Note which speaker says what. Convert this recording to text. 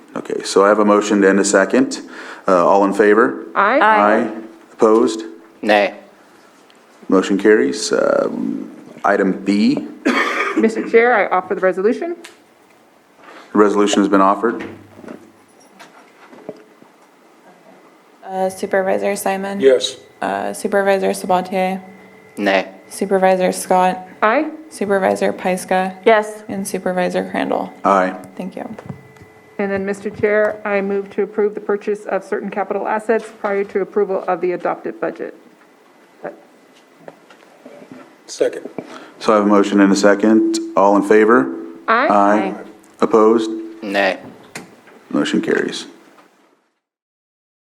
Speaker 1: Okay, so I have a motion and a second. Uh, All in favor?
Speaker 2: Aye.
Speaker 1: Aye. Opposed?
Speaker 3: Nay.
Speaker 1: Motion carries. Um, Item B,
Speaker 2: Mr. Uh, Chair, I offer the resolution.
Speaker 1: the resolution has been offered.
Speaker 4: Uh, Supervisor Simon?
Speaker 5: Yes.
Speaker 4: Uh, Supervisor Sabatier?
Speaker 3: Nay.
Speaker 4: Supervisor Scott?
Speaker 2: Aye.
Speaker 4: Supervisor Pyska?
Speaker 6: Yes.
Speaker 4: And Supervisor Crandall?
Speaker 1: Aye.
Speaker 4: Thank you.
Speaker 2: And then, Mr. Chair, I move to approve the purchase of certain capital assets prior to approval of the adopted budget.
Speaker 5: Second.
Speaker 1: So I have a motion and a second. All in favor?
Speaker 2: Aye.
Speaker 1: Aye. Opposed?
Speaker 3: Nay.
Speaker 1: Motion carries.